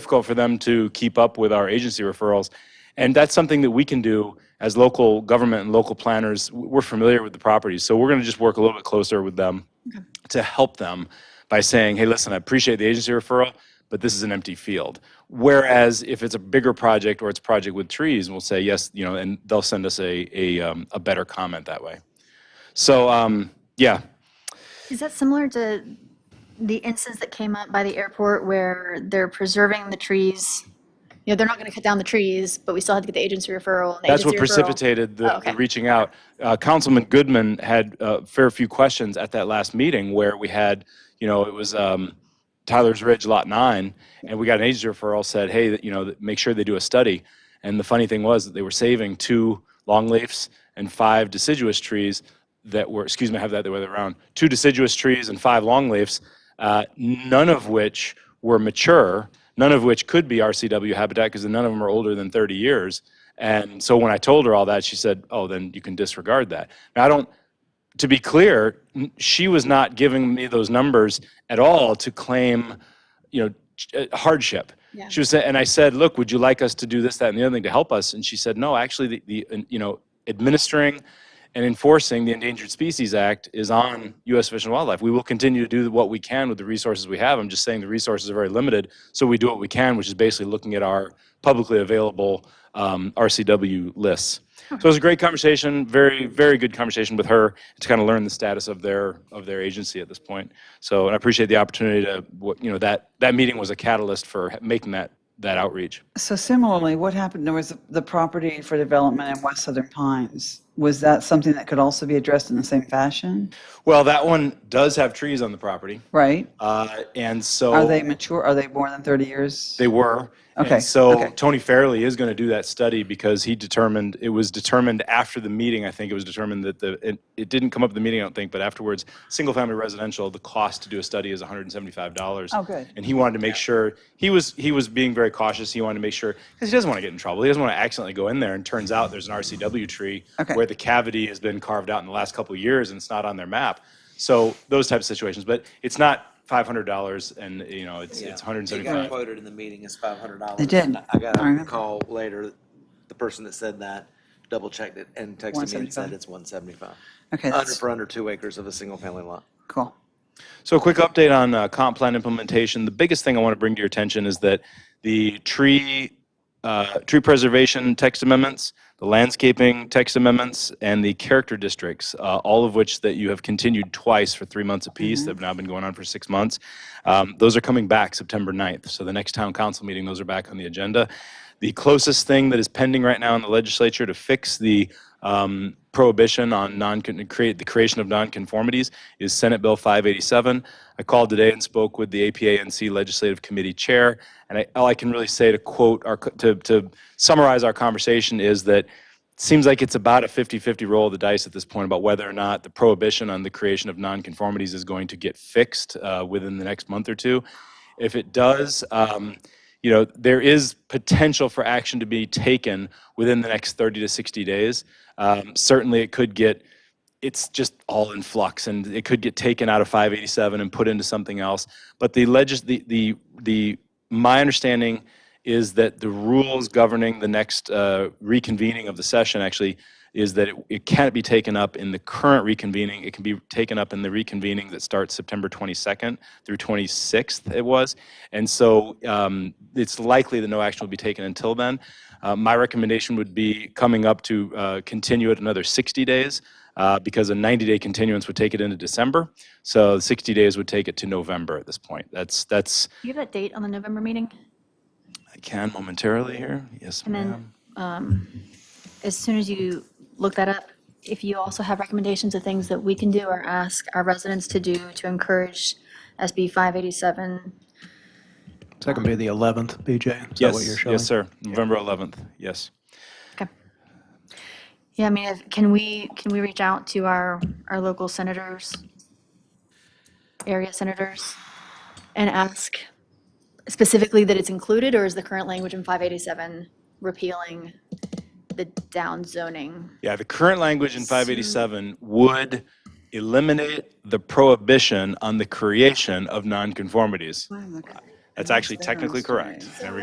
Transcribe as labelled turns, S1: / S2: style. S1: difficult for them to keep up with our agency referrals. And that's something that we can do as local government and local planners. W- We're familiar with the properties, so we're going to just work a little bit closer with them to help them by saying, hey, listen, I appreciate the agency referral, but this is an empty field. Whereas if it's a bigger project or it's a project with trees, we'll say, yes, you know, and they'll send us a, a, um, a better comment that way. So, um, yeah,
S2: Is that similar to the instance that came up by the airport where they're preserving the trees? You know, they're not going to cut down the trees, but we still had to get the agency referral. and the
S1: That's what
S2: agency referral-
S1: precipitated the,
S2: Oh, okay.
S1: the reaching out. Uh, Councilman Goodman had a fair few questions at that last meeting where we had, you know, it was um, Tyler's Ridge Lot 9, and we got an agency referral said, hey, that- you know, that- make sure they do a study. And the funny thing was that they were saving two longleafs and five deciduous trees that were, excuse me, I have that the other way around, two deciduous trees and five longleafs, uh, none of which were mature, none of which could be RCW habitat because none of them are older than 30 years. And so when I told her all that, she said, "Oh, then you can disregard that." Now I don't. To be clear, n- she was not giving me those numbers at all to claim, you know, ch- uh, hardship.
S2: Yeah.
S1: She was, sa- and I said, "Look, would you like us to do this, that, and the other thing to help us?" And she said, "No, actually, the, the uh, you know, administering and enforcing the Endangered Species Act is on U.S. Fish and Wildlife. We will continue to do what we can with the resources we have. I'm just saying the resources are very limited, so we do what we can, which is basically looking at our publicly available um, RCW lists. So it was a great conversation, very, very good conversation with her to kind of learn the status of their of their agency at this point. So, and I appreciate the opportunity to, what- you know, that that meeting was a catalyst for making that that outreach.
S3: So similarly, what happened, there was the property for development in West Southern Pines. Was that something that could also be addressed in the same fashion,
S1: Well, that one does have trees on the property,
S3: right?
S1: uh, and so
S3: Are they mature, are they more than 30 years?
S1: They were. And
S3: Okay,
S1: so
S3: okay.
S1: Tony Fairley is going to do that study because he determined it was determined after the meeting. I think it was determined that the it, it didn't come up at the meeting. I don't think, but afterwards, single family residential, the cost to do a study is one hundred and seventy five dollars.
S3: Oh, good.
S1: And he wanted to make sure he was he was being very cautious. He wanted to make sure because he doesn't want to get in trouble. He doesn't want to accidentally go in there. And turns out there's an RCW tree
S3: Okay.
S1: where the cavity has been carved out in the last couple of years and it's not on their map. So those types of situations, but it's not five hundred dollars and you know it's it's
S4: Yeah.
S1: one hundred and seventy
S4: It got
S1: five.
S4: quoted in the meeting as five hundred dollars.
S3: They did.
S4: I got
S3: I remember.
S4: a call later, the person that said that double checked it and texted me and said
S3: 175?
S4: it's one seventy-five.
S3: Okay,
S4: Under,
S3: that's
S4: for under two acres of a single family lot.
S3: cool.
S1: So a quick update on uh, comp plan implementation. The biggest thing I want to bring to your attention is that the tree, uh, tree preservation text amendments, the landscaping text amendments, and the character districts, uh, all of which that you have continued twice for three months apiece, that have now been going on for six months. Um, Those are coming back September 9th. So the next town council meeting, those are back on the agenda. The closest thing that is pending right now in the legislature to fix the um, prohibition on non create the creation of nonconformities is Senate Bill 587. I called today and spoke with the APANC Legislative Committee Chair, and I, all I can really say to quote our co- to, to summarize our conversation is that it seems like it's about a 50-50 roll of the dice at this point about whether or not the prohibition on the creation of nonconformities is going to get fixed uh, within the next month or two. If it does, um, you know, there is potential for action to be taken within the next 30 to 60 days. Um, certainly, it could get, it's just all in flux, and it could get taken out of 587 and put into something else. But the legis, the, the, the, my understanding is that the rules governing the next uh, reconvening of the session actually is that it, it can't be taken up in the current reconvening. It can be taken up in the reconvening that starts September 22nd through 26th, it was. And so um, it's likely that no action will be taken until then. Uh, my recommendation would be coming up to uh, continue it another 60 days uh, because a 90 day continuance would take it into December. So 60 days would take it to November at this point. That's, that's,
S2: Do you have that date on the November meeting?
S1: I can momentarily here. Yes,
S2: And
S1: ma'am.
S2: then, um, as soon as you look that up, if you also have recommendations of things that we can do or ask our residents to do to encourage SB 587,
S5: It's not going to be the 11th, BJ? Is that what you're
S1: Yes,
S5: showing?
S1: yes, sir. November 11th, yes.
S2: Okay. Yeah, I mean, if- can we, can we reach out to our, our local senators, area senators, and ask specifically that it's included, or is the current language in 587 repealing the down zoning?
S1: Yeah, the current language in 587 would eliminate the prohibition on the creation of nonconformities. That's actually
S3: Downstairs,
S1: technically correct.
S3: right.
S1: There we